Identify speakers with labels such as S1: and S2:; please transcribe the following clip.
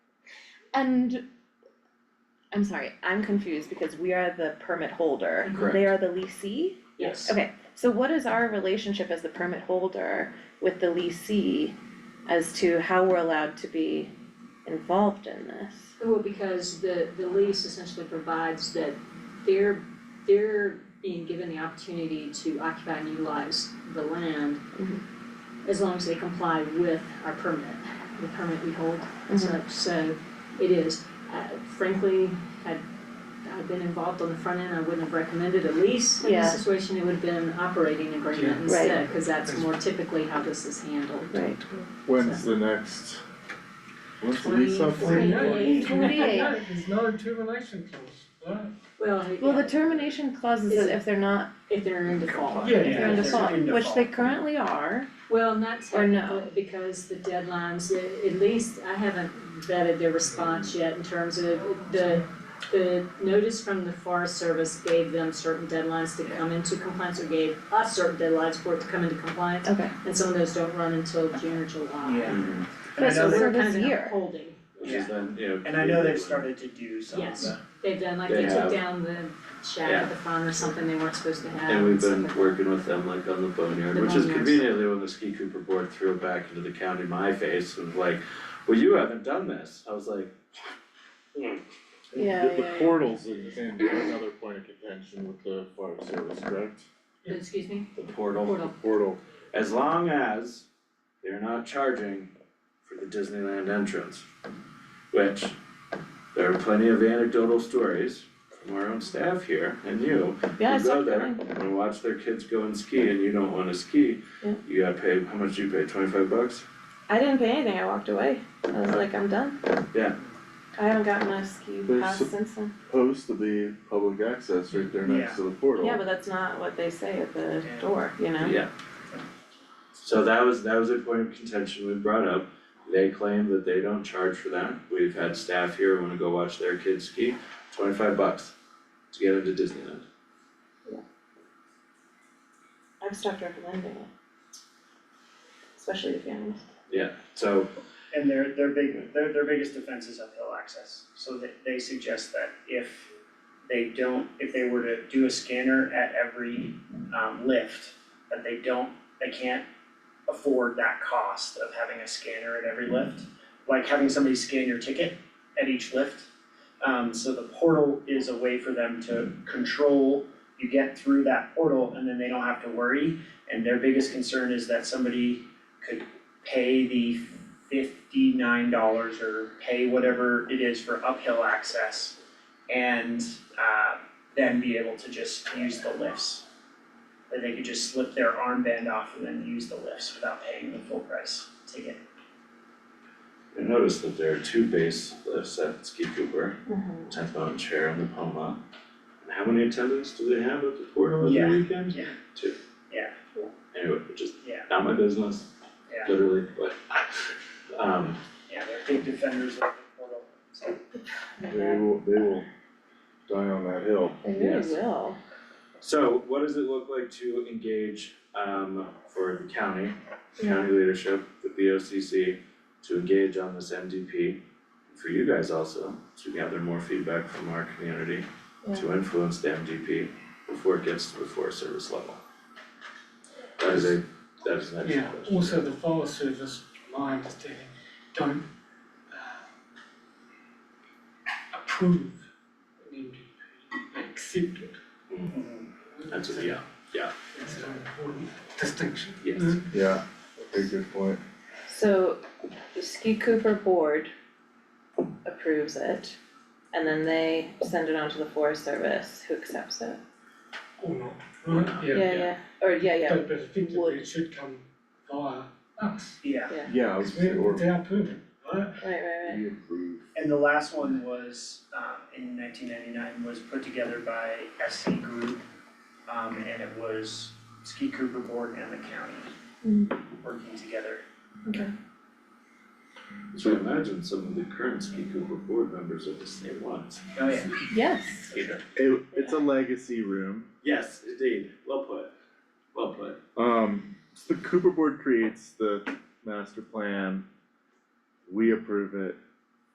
S1: And I'm sorry, I'm confused because we are the permit holder.
S2: Correct.
S1: They are the leasee?
S2: Yes.
S1: Okay, so what is our relationship as the permit holder with the leasee as to how we're allowed to be involved in this?
S3: Well, Oh, because the, the lease essentially provides that they're, they're being given the opportunity to occupy and utilize the land
S1: Mhm.
S3: as long as they comply with our permit, the permit we hold and
S1: Mm-hmm.
S3: such, so it is. Uh, frankly, had I been involved on the front end, I wouldn't have recommended a lease in
S1: Yeah.
S3: this situation, it would have been an operating
S2: Yeah.
S3: agreement
S1: Right.
S3: instead, cause that's more typically how this is handled.
S1: Right.
S4: When's the next? When's the
S3: Twenty
S4: lease up?
S3: forty. Twenty-eight.
S1: Twenty-eight.
S5: There's not a termination clause,
S3: Well,
S1: Well, the
S3: yeah,
S1: termination clause is that if they're not,
S3: if they're in default.
S5: right?
S1: if they're in
S2: Yeah,
S1: default, which they currently are,
S3: Well, not
S1: Or no?
S3: technically, because the deadlines, a- at least I haven't vetted their response yet in terms of the the notice from the Forest Service gave them certain deadlines to come into compliance or gave us certain deadlines for it to come into compliance.
S1: okay,
S3: And some of those don't run until June or July.
S5: Yeah.
S2: Mhm.
S5: And I
S1: So
S5: know
S1: we're-
S5: they,
S3: We're kind of
S1: this
S3: in a
S1: year.
S3: holding.
S2: Which is then, you know.
S5: and I know
S2: they-
S5: they've started to do some of
S3: Yes.
S5: the,
S3: They've done, like
S2: They
S3: they took
S2: have.
S3: down the shack
S2: Yeah.
S3: at the front or something they weren't supposed to have.
S2: And we've
S3: stuff
S2: been
S3: like that.
S2: working with them like on the boneyard,
S3: The
S2: which is
S3: boneyards.
S2: conveniently when the ski cooper board threw it back into the county my face and was like, well, you haven't done this. I was like,
S1: Yeah,
S4: The-
S1: yeah, yeah.
S4: The portals is in another point of contention with the fire service, correct?
S3: Excuse me?
S2: the portal,
S4: The
S3: Portal.
S4: portal,
S2: as long as they're not charging for the Disneyland entrance, which there are plenty of anecdotal stories from our own staff here and you.
S1: yeah, I
S2: You
S1: saw
S2: go
S1: it
S2: there
S1: coming.
S2: and watch their kids go and ski and you don't wanna ski,
S1: Yeah.
S2: you gotta pay, how much do you pay, twenty-five bucks?
S1: I didn't pay anything, I walked away, I was like, I'm done.
S2: Yeah.
S1: I haven't gotten my ski
S4: There's
S1: pass
S4: some-
S1: since then,
S4: supposed to be public access right there next
S5: Yeah.
S4: to the portal.
S1: yeah, but that's not what they say at the
S5: Yeah.
S1: door, you know?
S2: Yeah. So that was, that was a point of contention we brought up, they claim that they don't charge for that, we've had staff here who wanna go watch their kids ski, twenty-five bucks to get into Disneyland.
S1: I've stopped recommending it. Especially to families.
S2: So
S5: and their, their big, their, their biggest defense is uphill access. So they, they suggest that if they don't, if they were to do a scanner at every, um, lift, that they don't, they can't afford that cost of having a scanner at every lift. Like having somebody scan your ticket at each lift. Um, so the portal is a way for them to control, you get through that portal and then they don't have to worry. And their biggest concern is that somebody could pay the fifty-nine dollars or pay whatever it is for uphill access and uh then be able to just use the lifts. That they could just slip their armband off and then use the lifts without paying the full price ticket.
S2: I noticed that there are two base lifts at Ski Cooper, tenth mountain chair and the Poma. And how many attendants do they have at the portal
S5: Yeah.
S2: every weekend?
S5: Yeah.
S2: Two.
S5: Yeah.
S2: Anyway, just
S5: Yeah.
S2: not my business,
S5: Yeah.
S2: literally, but um
S5: Yeah, they're big defenders of the portal, so.
S4: They will, they will die on that hill.
S1: They
S2: Yes.
S1: really will.
S2: So what does it look like to engage um for the county, county leadership, the B O C C to engage on this M D P? For you guys also, to gather more feedback from our community, to influence the M D P before it gets to the Forest Service level. That is a, that is an
S6: Yeah,
S2: excellent question.
S6: also the Forest Service, my understanding, don't uh, approve an MDP, they accept it.
S5: Mm-hmm.
S2: That's a, yeah,
S6: It's an important distinction.
S2: yes,
S6: Mm.
S4: Yeah, a good point.
S1: So the Ski Cooper board approves it. And then they send it on to the Forest Service who accepts it.
S6: Or not, right? Yeah.
S1: Yeah, yeah, or yeah, yeah,
S6: But but
S1: Would.
S6: effectively it should come via us,
S5: Yeah.
S4: Yeah, I was,
S6: because we're,
S4: or
S6: it's our permit, right?
S1: right, right, right.
S4: we approve.
S5: And the last one was, um, in nineteen ninety-nine, was put together by SC Group. Um, and it was Ski Cooper Board and the county working together.
S2: so imagine some of the current Ski Cooper board members are the same ones.
S5: Oh, yeah.
S1: Yes.
S4: It, it's a legacy room.
S2: Yes, indeed, well put, well put.
S4: Um, so the Cooper Board creates the master plan. We approve it,